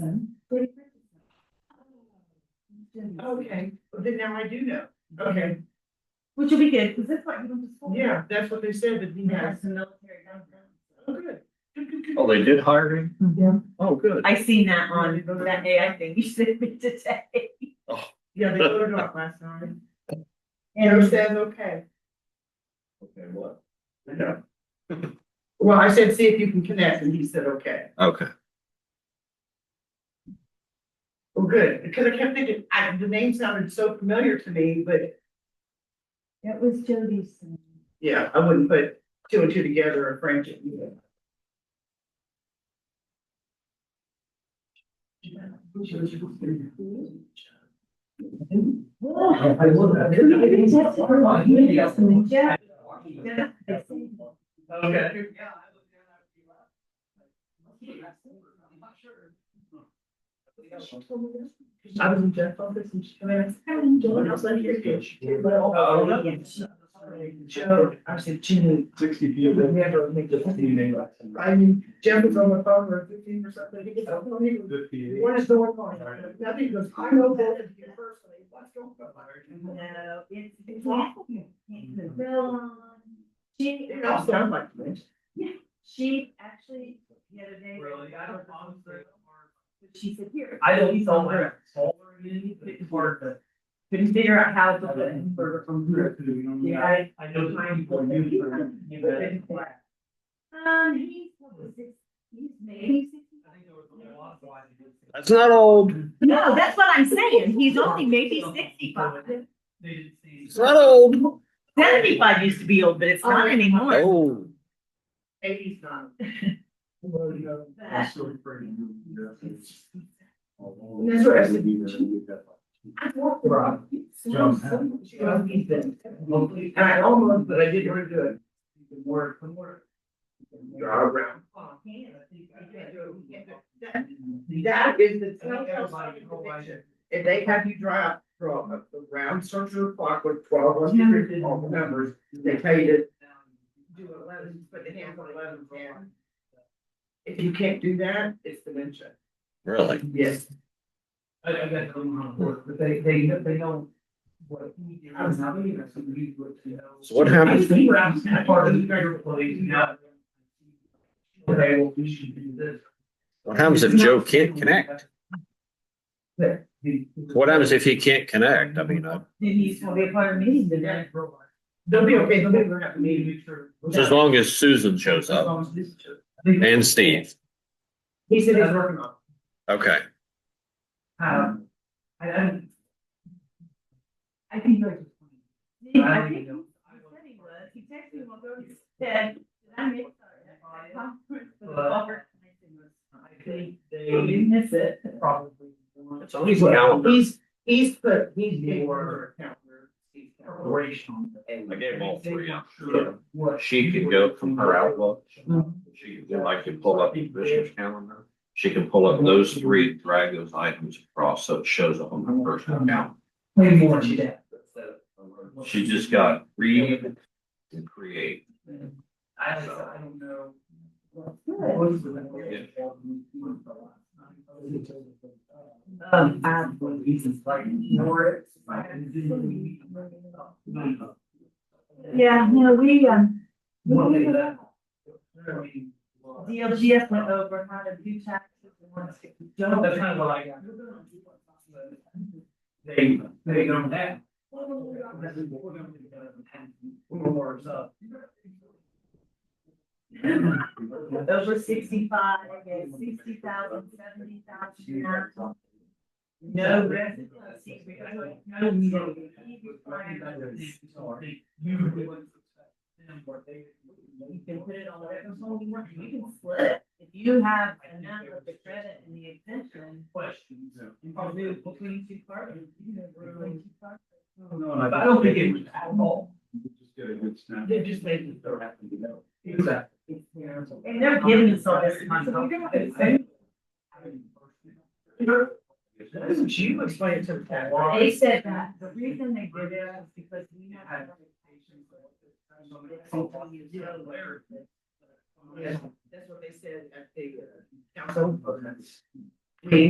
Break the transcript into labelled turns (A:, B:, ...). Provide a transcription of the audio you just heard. A: Richardson. Bertie Richardson.
B: Okay, well, then now I do know. Okay,
A: Which will be good, because that's what you went to school. for.
B: yeah, that's what they said that he
A: He has
B: has.
A: some military background.
B: Oh, good. Good, good, good.
C: Oh, they did hire him?
A: Yeah.
C: Oh, good.
A: I seen that on that AI thing you sent me today.
B: Yeah, they voted off last time. Joe
A: And
B: says, okay.
C: Okay, what? Yeah.
B: Well, I said, see if you can connect, and he said, okay.
C: Okay.
B: Well, good, because I kept thinking, I, the name sounded so familiar to me, but
A: it was Jody's. son.
B: yeah, I wouldn't put two and two together or French. Oh,
C: I
A: Yeah. Yeah.
B: Okay. I was in Jeff's office and she came in, I said, how are you doing? I was like, you're good. She did well.
C: Oh,
A: yeah.
B: Joe, I said, Jimmy,
C: Sixty
B: you would never make this. I mean, Jeff was on the phone for fifteen or something, he gets up, and he goes, what is going on? Nothing, he goes, I know that is your first name, what's going on?
A: No, it's, it's awful.
B: They
A: It's a villain. She,
B: all sound like this.
A: she actually, the other day. She said, here.
D: I don't use all my. It's hard, but.
A: Couldn't figure out how to put it further from here.
D: Yeah, I know some people use for. you know, I think
A: Um, he's, what was it? He's maybe.
D: there was a lot, so I think it's-
C: That's not old.
A: No, that's what I'm saying. He's only maybe sixty-five.
D: They didn't see.
C: It's not old.
A: Seventy-five used to be old, but it's not anymore.
C: Oh.
B: Eighties nine.
A: But
B: That's what I said. I walked around. She goes, "He's been-" And I almost, but I didn't really do it. You can work, can work. You're all around. That that is the
D: Everybody, the whole
B: telltale.
D: way.
B: If they have you draw out, draw a a round circular clock with twelve ones, you did all the numbers, they tell you to do eleven, put the hands on eleven. yeah. If you can't do that, it's dementia.
C: Really?
B: Yes.
D: I, I got them on board, but they, they, they know what we do, and how we, that's what we would, you know.
C: So what happened?
D: I think we're out of part of the bigger place now. Okay, well, we should do this.
C: What happens if Joe can't connect? What happens if he can't connect? I mean, uh,
A: Then he's gonna be a part of meeting today.
B: They'll be okay, they'll be, we're happy.
C: so as long as Susan shows up and Steve.
B: He said he's working on
C: Okay.
D: Um, I, I,
A: I think you're.
D: I
A: I
D: don't
A: think
D: even know.
A: he said he was. He texted me one day. He said, "Did I miss that conference for the Walker?" And I said,
D: I think
A: "No, You
D: they
A: didn't miss it.
D: probably. want
C: It's always
B: it. He's, he's put, he's been more.
D: Operational.
C: I gave all three
D: Sure. What?
C: She could go from her outlook. She could, I could pull up the
D: Commissioner's
C: commissioner's calendar. She can pull up those three, drag those items across, so it shows up on her personal account.
D: Way more than that.
C: She just got read and create.
D: I, I don't know.
A: Good.
D: What is the-
A: Um, I-
D: One of the reasons why I ignore it, I didn't- No.
A: Yeah, no, we, um,
D: One day that.
A: DLGF went over how to do taxes and wants to.
D: No, that's kind of what I got. They, they don't have. Or up.
A: Over sixty-five, okay, sixty thousand, seventy thousand, now. no residents. You can put it on whatever phone you want, you can split it. If you have enough of the credit and the exemption,
D: Questions.
A: you probably do between two parties, you know, between two parties.
D: But I don't think it was at all.
B: They just made it so happy, you know.
D: Exactly.
A: And they're giving us all this money. so we don't have to say-
B: Doesn't she explain it to the.
A: They said that the reason they did it was because we had.
B: Yeah, that's what they said at the uh, council.
D: We